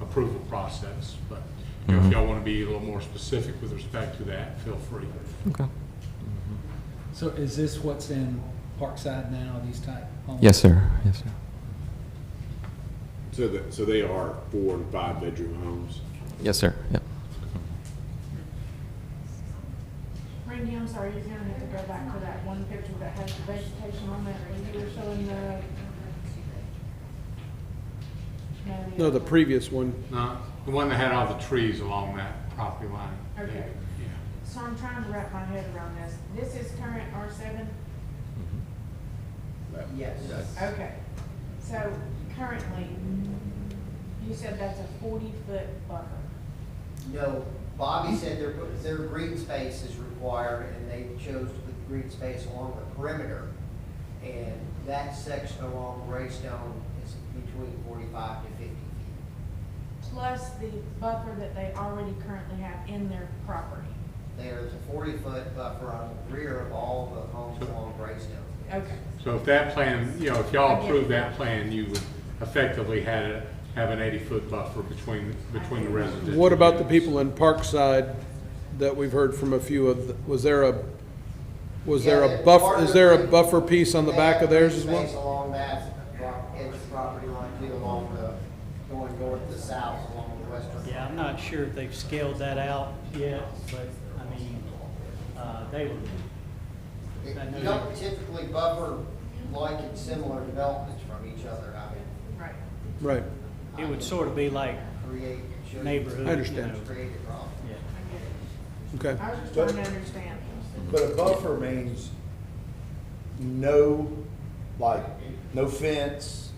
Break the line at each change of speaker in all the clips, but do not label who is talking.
approval process, but you
Mm-hmm.
know, if y'all want to be a little more specific with respect to that, feel free.
Okay.
So is this what's in Parkside now, these type homes?
Yes, sir. Yes, sir.
So that, so they are four and five bedroom homes?
Yes, sir. Yep.
Randy, I'm sorry, you're gonna have to go back to that one picture that has the vegetation on that, where you were showing the.
No, the previous one,
Now, Uh, the one that had all the trees along that property line.
Okay.
Yeah.
So I'm trying to wrap my head around this. This is current R seven?
Yes.
Okay. So currently, you said that's a forty-foot buffer.
No, Bobby said their, their green space is required, and they chose to put green space along the perimeter. And that section along Greystone is between forty-five to fifty feet.
Plus the buffer that they already currently have in their property.
There's a forty-foot buffer on the rear of all the homes along Greystone.
Okay.
So if that plan, you know, if
I
y'all
get
approve
it.
that plan, you would effectively had a, have an eighty-foot buffer between, between the residential.
what about the
units.
people in Parkside that we've heard from a few of, the- was there a, was there
Yeah,
a
that
buff,
part
is
of
there a
the-
buffer piece on the
They
back
have
of theirs
green
as
Space
well?
along that, block- edge of property line, too, along the, going north to south, along the western.
Yeah, I'm not sure if they've scaled that out yet, but, I mean, uh, they were,
You
I know
don't
that.
typically buffer like and similar developments from each other, I mean,
Right.
Right,
it would sort of be like,
create. show you-
Neighborhood,
I understand. you know.
Create a problem.
yeah.
I get it.
okay.
I was just trying to understand.
But a buffer means no, like, no fence.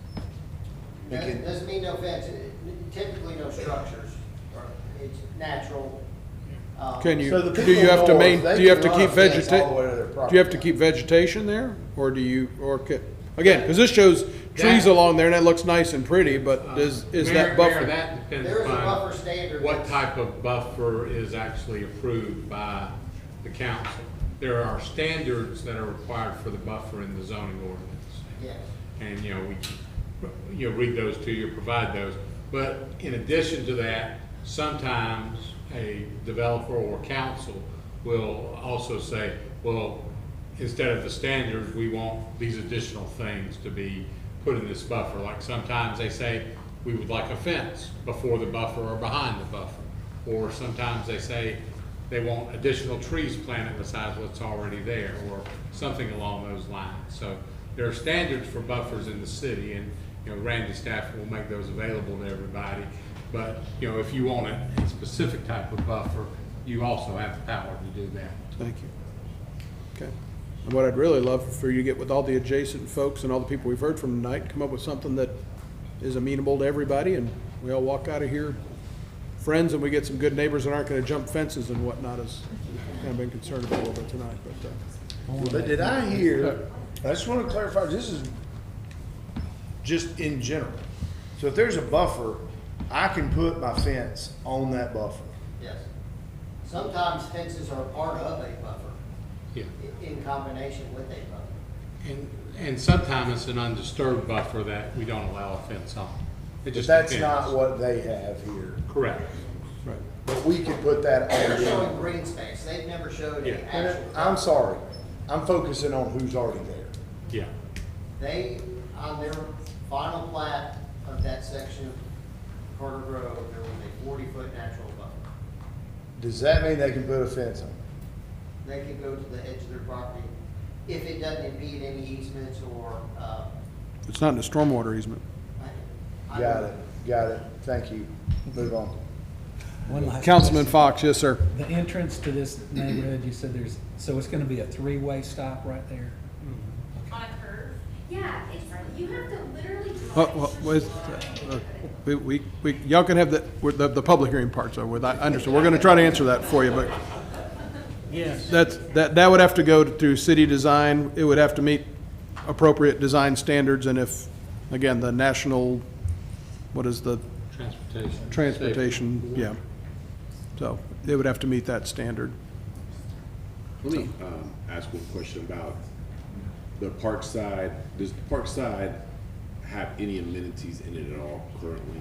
It
Doesn't
can-
doesn't mean no fence, It- typically no structures, or it's natural. uh,
Can
So
you,
the
do
people
you have to
north,
main,
they
do you have
can
to
run
keep
a fence all the way to their
vegeta, do you have
property
to
line.
keep vegetation there? Or do you, or, ca- again, because this shows trees
That-
along there and it looks nice and pretty, but is, is
Mayor-
that
Mayor,
buffer?
Um, that depends
There is a
upon
buffer standard
What
that's-
type of buffer is actually approved by the council? There are standards that are required for the buffer in the zoning ordinance.
Yes,
And, you know, we, you know, read those to you, provide those. But in addition to that, sometimes a developer or council will also say, well, instead of the standards, we want these additional things to be put in this buffer. Like sometimes they say, we would like a fence before the buffer or behind the buffer. Or sometimes they say, they want additional trees planted besides what's already there, or something along those lines. So there are standards for buffers in the city, and, you know, Randy staff will make those available to everybody. But, you know, if you want a a specific type of buffer, you also have the power to do that.
Thank you. Okay. And what I'd really love for you to get with all the adjacent folks and all the people we've heard from tonight, come up with something that is amenable to everybody and we all walk out of here friends and we get some good neighbors that aren't gonna jump fences and whatnot is kind of been concerned about a little bit tonight, but, uh,
But did I hear, I just want to clarify, this is just in general. So if there's a buffer, I can put my fence on that buffer.
yes. Sometimes fences are part of a buffer,
Yeah.
i- in combination with a buffer.
And, and sometimes it's an undisturbed buffer that we don't allow a fence on. It
But
just
that's
depends.
not what they have here.
Correct.
right.
But we can put that
They're
on.
showing
them.
green space, they've never showed
Yeah.
any actual.
I'm sorry, I'm focusing on who's already there.
Yeah.
They, on their final plat of that section of Carter Grove, there was a forty-foot natural buffer.
Does that mean they can put a fence on? it?
They could go to the edge of their property if it doesn't impede any easements or, uh,
It's not in a stormwater easement.
I- I
Got
don't-
it, got it, thank you, move on.
One last
Councilman
question.
Fox, yes, sir.
The entrance to this neighborhood, you said there's, so it's gonna be a three-way stop right there?
on a curve. Yeah, it's, you have to literally.
Uh,
drive
well,
through
well, it's,
the
uh, uh,
line.
We, we, we- y'all can have the, we're- the, the public hearing part's over with, I understand. We're gonna try to answer that for you, but
Yes,
That's, that, that would have to go to city design, it would have to meet appropriate design standards, and if, again, the national, what is the,
Transportation.
transportation, yeah. So, it would have to meet that standard.
Let me um, ask one question about the Parkside. Does Parkside have any amenities in it at all currently?